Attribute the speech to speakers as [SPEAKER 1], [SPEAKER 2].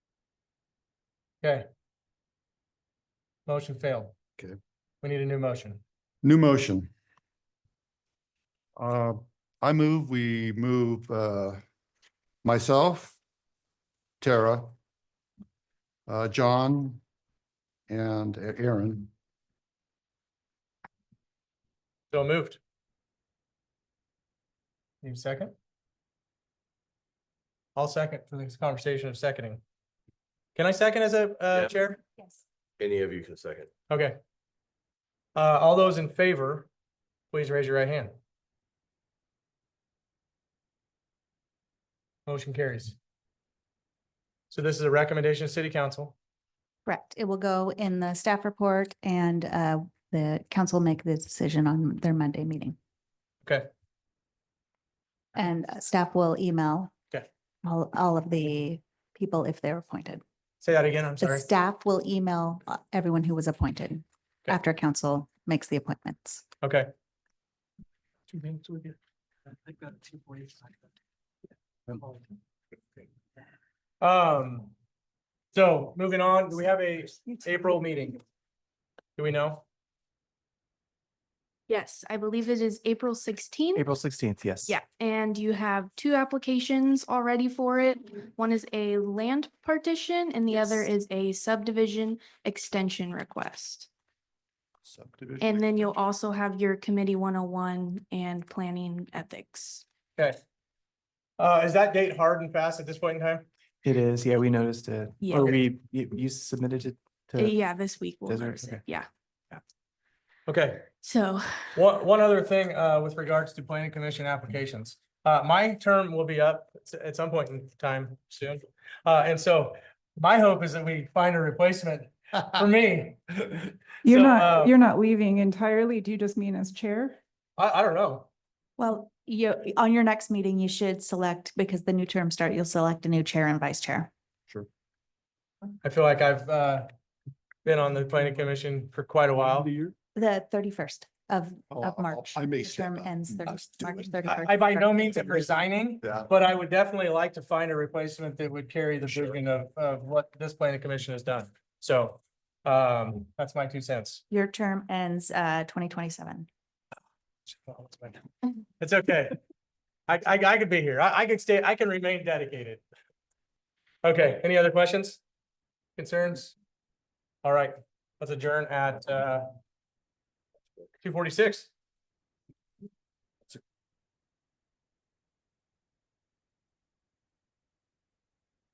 [SPEAKER 1] Okay. Motion failed.
[SPEAKER 2] Okay.
[SPEAKER 1] We need a new motion.
[SPEAKER 2] New motion. Uh, I move, we move, uh, myself, Tara, uh, John, and Aaron.
[SPEAKER 1] So moved. Need a second? I'll second for this conversation of seconding. Can I second as a, uh,
[SPEAKER 3] Yeah.
[SPEAKER 1] chair?
[SPEAKER 4] Yes.
[SPEAKER 3] Any of you can second.
[SPEAKER 1] Okay. Uh, all those in favor, please raise your right hand. Motion carries. So this is a recommendation of city council.
[SPEAKER 4] Correct. It will go in the staff report and uh, the council make the decision on their Monday meeting.
[SPEAKER 1] Okay.
[SPEAKER 4] And uh, staff will email
[SPEAKER 1] Okay.
[SPEAKER 4] all, all of the people if they're appointed.
[SPEAKER 1] Say that again, I'm
[SPEAKER 4] The
[SPEAKER 1] sorry.
[SPEAKER 4] staff will email uh, everyone who was appointed
[SPEAKER 1] Okay.
[SPEAKER 4] after council makes the appointments.
[SPEAKER 1] Okay.
[SPEAKER 5] two minutes with you? I've got two forty-five.
[SPEAKER 1] Um, so moving on, do we have a April meeting? Do we know?
[SPEAKER 6] Yes, I believe it is April sixteenth.
[SPEAKER 7] April sixteenth, yes.
[SPEAKER 6] Yeah, and you have two applications already for it. One is a land partition and the other is a subdivision extension request.
[SPEAKER 2] Subdivision.
[SPEAKER 6] And then you'll also have your committee one oh one and planning ethics.
[SPEAKER 1] Okay. Uh, is that date hard and fast at this point in time?
[SPEAKER 7] It is, yeah, we noticed it,
[SPEAKER 6] Yeah.
[SPEAKER 7] or we, you, you submitted it to,
[SPEAKER 6] Uh, Yeah, this week we'll
[SPEAKER 7] Those are-
[SPEAKER 6] notice it,
[SPEAKER 7] okay.
[SPEAKER 6] yeah.
[SPEAKER 1] Okay,
[SPEAKER 6] So
[SPEAKER 1] one, one other thing, uh, with regards to planning commission applications. Uh, my term will be up s- at some point in time soon. Uh, and so my hope is that we find a replacement for me.
[SPEAKER 8] You're
[SPEAKER 1] So, uh,
[SPEAKER 8] not, you're not leaving entirely. Do you just mean as chair?
[SPEAKER 1] I, I don't know.
[SPEAKER 4] Well, you, on your next meeting, you should select, because the new term start, you'll select a new chair and vice chair.
[SPEAKER 1] I feel like I've, uh, been on the planning commission for quite a while.
[SPEAKER 4] The thirty-first of,
[SPEAKER 2] Oh,
[SPEAKER 4] of
[SPEAKER 2] I-
[SPEAKER 4] March.
[SPEAKER 2] I may
[SPEAKER 4] The
[SPEAKER 2] step
[SPEAKER 4] term
[SPEAKER 2] up.
[SPEAKER 4] ends
[SPEAKER 2] I
[SPEAKER 4] 30
[SPEAKER 2] was
[SPEAKER 4] March
[SPEAKER 2] doing-
[SPEAKER 4] 31st.
[SPEAKER 1] I by no means am resigning,
[SPEAKER 2] Yeah.
[SPEAKER 1] But I would definitely like to find a replacement that would carry the vision of, of what this planning commission has done. So, um, that's my two cents.
[SPEAKER 4] Your term ends uh twenty twenty-seven.
[SPEAKER 1] It's okay. I, I, I could be here. I, I could stay, I can remain dedicated. Okay, any other questions? Concerns? All right, let's adjourn at, uh, two forty-six.